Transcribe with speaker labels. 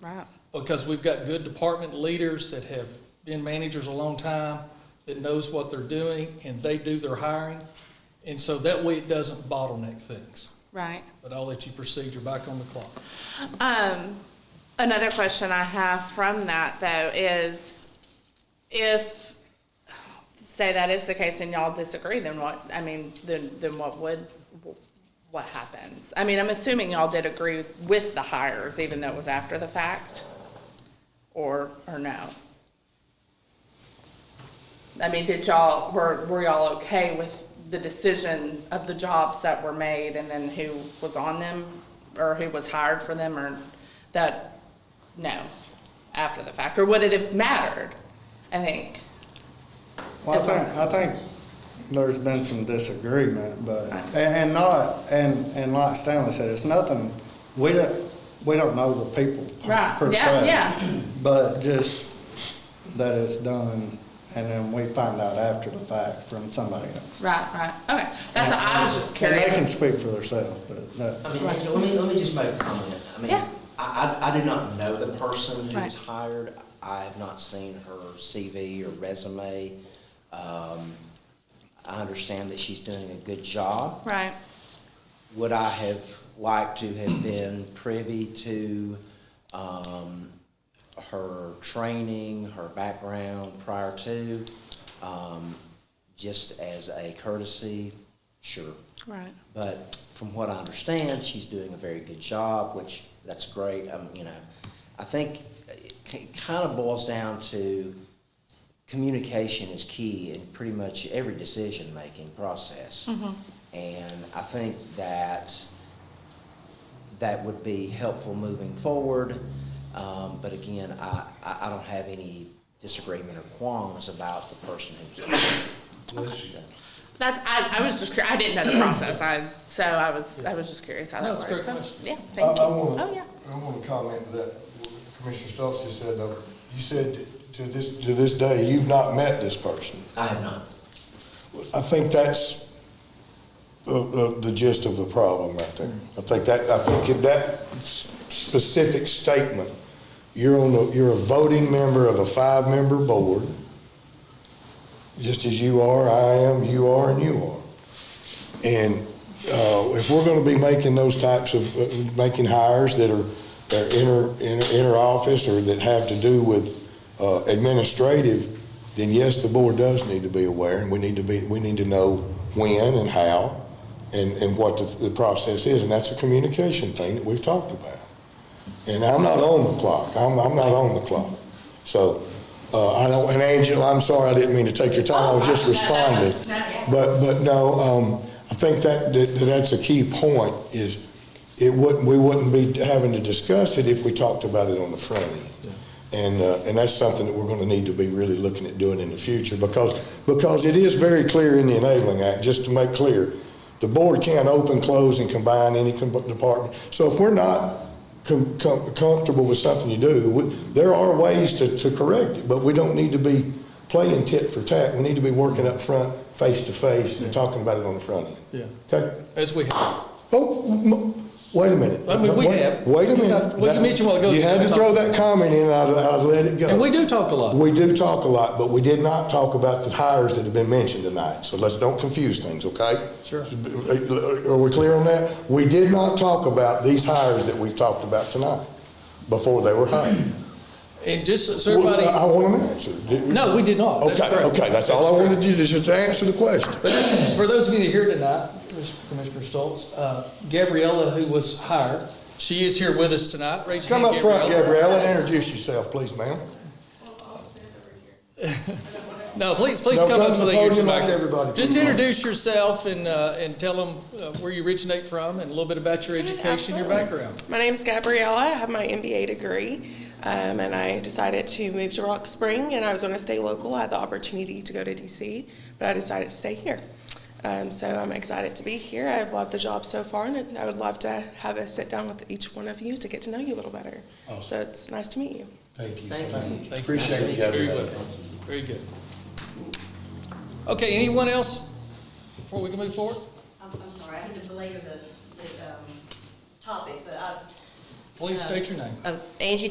Speaker 1: Right.
Speaker 2: because we've got good department leaders that have been managers a long time, that knows what they're doing, and they do their hiring. And so that way it doesn't bottleneck things.
Speaker 1: Right.
Speaker 2: But I'll let you proceed, you're back on the clock.
Speaker 1: Um, another question I have from that though is if, say that is the case and y'all disagree, then what, I mean, then, then what would, what happens? I mean, I'm assuming y'all did agree with the hires, even though it was after the fact? Or, or no? I mean, did y'all, were, were y'all okay with the decision of the jobs that were made and then who was on them? Or who was hired for them or that, no, after the fact? Or would it have mattered, I think?
Speaker 3: Well, I
Speaker 1: as well.
Speaker 3: think, I think there's been some disagreement, but, and and not, and, and like Stanley said, it's nothing, we don't, we don't know the people
Speaker 1: Right,
Speaker 3: per
Speaker 1: yeah,
Speaker 3: se.
Speaker 1: yeah.
Speaker 3: But just that it's done, and then we find out after the fact from somebody else.
Speaker 1: Right, right, okay. That's, I was just
Speaker 3: And they can
Speaker 1: curious.
Speaker 3: speak for themselves, but that,
Speaker 4: I mean, let me, let me just make a comment. I mean,
Speaker 1: Yeah.
Speaker 4: I, I, I do not know the person who
Speaker 1: Right.
Speaker 4: was hired. I have not seen her CV or resume. Um, I understand that she's doing a good job.
Speaker 1: Right,
Speaker 4: Would I have liked to have been privy to, um, her training, her background prior to, um, just as a courtesy? Sure.
Speaker 1: right,
Speaker 4: But from what I understand, she's doing a very good job, which that's great. Um, you know, I think it kind of boils down to communication is key in pretty much every decision making process. And I think that that would be helpful moving forward. Um, but again, I, I, I don't have any disagreement or qualms about the person who's.
Speaker 1: That's, I, I was just, cur- I didn't know the process, I, so I was, I was just curious how
Speaker 2: No,
Speaker 1: that
Speaker 2: it's a
Speaker 1: works.
Speaker 2: great
Speaker 1: So,
Speaker 2: question.
Speaker 1: Yeah,
Speaker 5: I,
Speaker 1: thank you.
Speaker 5: I want
Speaker 1: Oh, yeah.
Speaker 5: to, I want to comment to that Commissioner Stokes just said, though, you said to this, to this day, you've not met this person.
Speaker 4: I have not.
Speaker 5: I think that's the, the- the gist of the problem right there. I think that, I think if that s- specific statement, you're on the, you're a voting member of a five-member board, just as you are, I am, you are, and you are. And uh, if we're going to be making those types of, uh, making hires that are, that are inter, inter, inter-office or that have to do with uh, administrative, then yes, the board does need to be aware, and we need to be, we need to know when and how and, and what the, the process is, and that's a communication thing that we've talked about. And I'm not on the clock, I'm, I'm not on the clock. So, uh, I don't, and Angela, I'm sorry, I didn't mean to take your time, I was just
Speaker 1: Oh, no, no, no,
Speaker 5: responding.
Speaker 1: no, yeah.
Speaker 5: But, but no, um, I think that, that, that's a key point is it wouldn't, we wouldn't be having to discuss it if we talked about it on the front end. And, uh, and that's something that we're gonna need to be really looking at doing in the future because, because it is very clear in the Enabling Act, just to make clear, the board can't open, close, and combine any com- department. So if we're not com- com- comfortable with something you do, we- there are ways to, to correct it, but we don't need to be playing tit for tat. We need to be working up front, face to face, and talking about it on the front end.
Speaker 2: Yeah.
Speaker 5: Okay?
Speaker 2: As we have.
Speaker 5: Oh, m- wait a minute.
Speaker 2: I mean, we
Speaker 5: Wait-
Speaker 2: have.
Speaker 5: Wait a minute.
Speaker 2: Well, you
Speaker 5: That-
Speaker 2: mentioned a while ago-
Speaker 5: You had to throw that comment in, I, I let it go.
Speaker 2: And we do talk a lot.
Speaker 5: We do talk a lot, but we did not talk about the hires that have been mentioned tonight, so let's, don't confuse things, okay?
Speaker 2: Sure.
Speaker 5: Are we clear on that? We did not talk about these hires that we've talked about tonight, before they were hired.
Speaker 2: And just so everybody,
Speaker 5: I want an answer. Did-
Speaker 2: no, we did not. That's
Speaker 5: Okay,
Speaker 2: correct.
Speaker 5: okay, that's all I wanted to do, is just answer the question.
Speaker 2: But this is, for those of you that are here tonight, Commissioner Stoltz, uh, Gabriella, who was hired, she is here with us tonight. Raise your
Speaker 5: Come up
Speaker 2: hand,
Speaker 5: front, Gabrielle, and introduce yourself, please, ma'am.
Speaker 2: No, please, please
Speaker 5: No,
Speaker 2: come
Speaker 5: come
Speaker 2: up
Speaker 5: to
Speaker 2: so
Speaker 5: the
Speaker 2: they can get your
Speaker 5: podium like
Speaker 2: mic.
Speaker 5: everybody,
Speaker 2: Just
Speaker 5: please.
Speaker 2: introduce yourself and, uh, and tell them uh, where you originate from and a little bit about your education, your background.
Speaker 6: My name's Gabriella. I have my MBA degree, um, and I decided to move to Rock Spring. And I was going to stay local. I had the opportunity to go to DC, but I decided to stay here. Um, so I'm excited to be here. I've loved the job so far, and I would love to have a sit down with each one of you to get to know you a little better. So it's nice to meet you.
Speaker 5: Thank you
Speaker 4: Thank
Speaker 5: so much.
Speaker 4: you.
Speaker 2: Thank you.
Speaker 5: Appreciate it,
Speaker 2: Very
Speaker 5: Gabrielle.
Speaker 2: good. Very good. Okay, anyone else before we can move forward?
Speaker 7: I'm, I'm sorry, I had to belabor the, the, um, topic, but I.
Speaker 2: Please state your name.
Speaker 7: Um, Angie